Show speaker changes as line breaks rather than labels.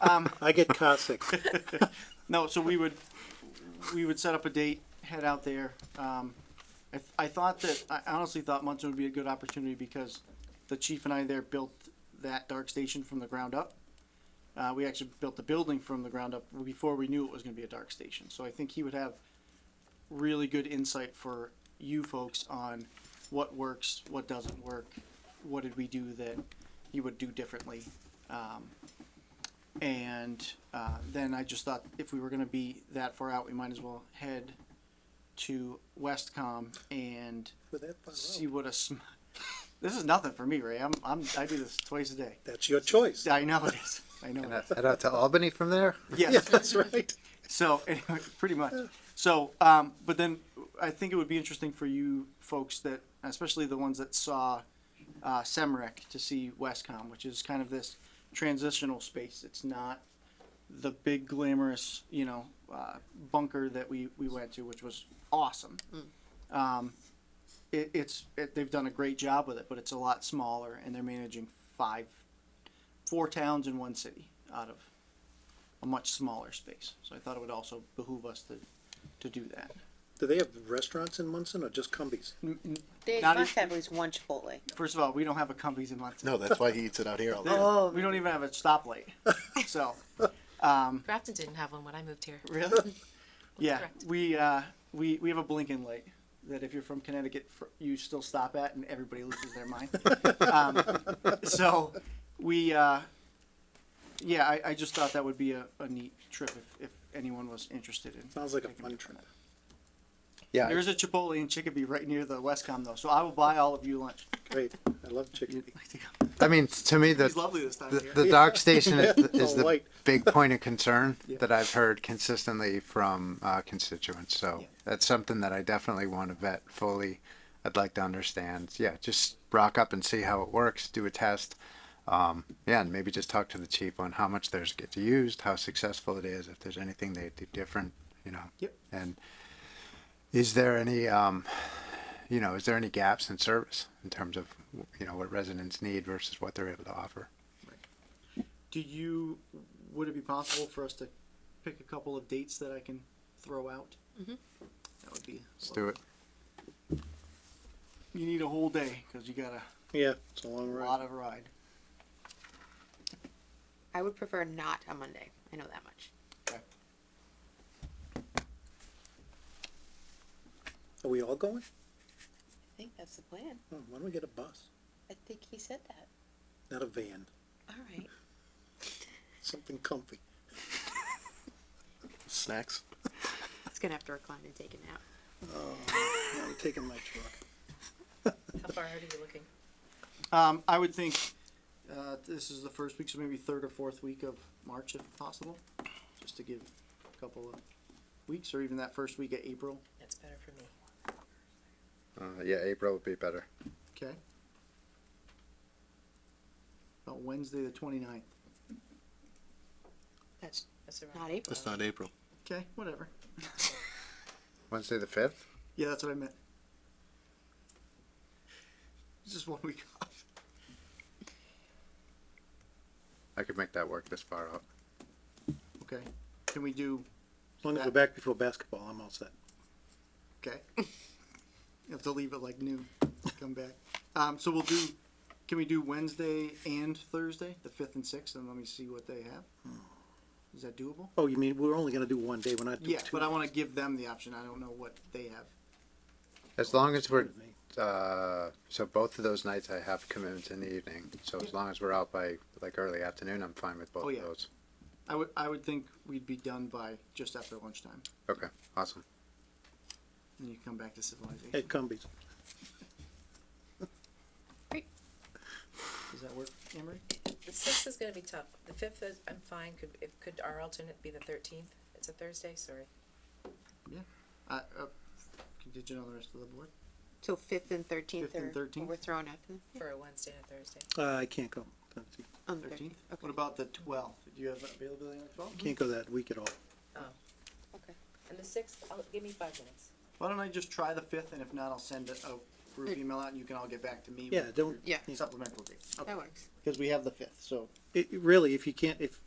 Um,
I get car sick.
no, so we would, we would set up a date, head out there. Um, I, I thought that, I honestly thought Munson would be a good opportunity because the chief and I there built that dark station from the ground up. Uh, we actually built the building from the ground up before we knew it was gonna be a dark station. So I think he would have really good insight for you folks on what works, what doesn't work, what did we do that he would do differently. Um, and uh, then I just thought if we were going to be that far out, we might as well head to Westcom and
With that far
see
out.
what a. Sm- this is nothing for me, Ray. I'm, I'm I do this twice a day.
That's your choice.
I know it is. I know it is.
Head out to Albany from there?
Yeah,
Yes.
that's right.
So anyway, pretty much. So, um, but then I think it would be interesting for you folks that, especially the ones that saw uh, Semrec, to see Westcom, which is kind of this transitional space. It's not the big glamorous, you know, uh, bunker that we we went to, which was awesome. Um, it, it's it, they've done a great job with it, but it's a lot smaller, and they're managing five, four towns in one city out of a much smaller space. So I thought it would also behoove us to, to do that.
Do they have restaurants in Munson or just Cumbies?
They
Not
must
if-
have at least one Chipotle.
First of all, we don't have a Cumbies in Munson.
No, that's why he eats it out here all the time.
Oh,
We don't even have a stoplight. So,
Grafton didn't have one when I moved here.
really? Yeah,
Correct.
we, uh, we, we have a blinking light that if you're from Connecticut, fr- you still stop at and everybody loses their mind. um, so we, uh, yeah, I, I just thought that would be a, a neat trip if, if anyone was interested in.
Sounds like a
taking
fun
part in
trip.
that.
Yeah.
There's a Chipotle in Chicopee right near the Westcom though, so I will buy all of you lunch.
Great. I love chicken.
I mean, to me, the,
He's lovely this time
the,
of year.
the dark station is, the- is
All
the
white.
big point of concern
Yeah.
that I've heard consistently from uh, constituents. So
Yeah.
that's something that I definitely want to vet fully. I'd like to understand. Yeah, just rock up and see how it works, do a test. Um, yeah, and maybe just talk to the chief on how much theirs gets used, how successful it is, if there's anything they do different, you know.
Yep.
And is there any, um, you know, is there any gaps in service in terms of, you know, what residents need versus what they're able to offer?
Do you, would it be possible for us to pick a couple of dates that I can throw out? That would be.
Let's do it.
You need a whole day, cause you got a
Yeah, it's a long
lot
ride.
of ride.
I would prefer not on Monday. I know that much.
Are we all going?
I think that's the plan.
Oh, Why don't we get a bus?
I think he said that.
Not a van.
All right.
Something comfy.
Snacks.
He's gonna have to recline and take a nap.
I'm taking my truck.
How far out are you looking?
Um, I would think, uh, this is the first week, so maybe third or fourth week of March if possible, just to give a couple of weeks, or even that first week of April,
That's better for me.
Uh, yeah, April would be better.
okay? About Wednesday, the twenty-ninth,
That's
That's around.
not April.
That's not April.
okay, whatever.
Wednesday the fifth.
Yeah, that's what I meant. It's Just one week off.
I could make that work this far out.
Okay. Can we do,
As long as we're back before basketball, I'm all set.
okay. You have to leave at like noon, come back. Um, so we'll do, can we do Wednesday and Thursday, the fifth and sixth, and let me see what they have? Is that doable?
Oh, you mean, we're only gonna do one day, we're not doing
Yeah,
two?
but I wanna give them the option. I don't know what they have.
As long as we're,
Excuse me.
uh, so both of those nights I have commitments in the evening. So as long as we're out by like early afternoon, I'm fine with both
Oh, yeah.
of those.
I would, I would think we'd be done by just after lunchtime,
Okay, awesome.
and you come back to civilization.
Hey, Cumbies.
Does that work, Emery?
The sixth is gonna be tough. The fifth is, I'm fine. Could, if, could our alternate be the thirteenth? It's a Thursday, sorry.
Uh, uh, contingent on the rest of the board?
So fifth and thirteenth
5th and
are,
13th?
we're throwing out the,
For a Wednesday and a Thursday.
Uh, I can't go.
on the
Thirteenth?
thirteenth.
What about the twelfth? Do you have availability on the twelfth?
Can't go that week at all.
Okay.
And the sixth, I'll, give me five minutes.
Why don't I just try the fifth, and if not, I'll send a, a group email out, and you can all get back to me.
Yeah, don't,
Yeah,
with Supplemental date,
that works.
because we have the fifth, so.
it, it really, if you can't, if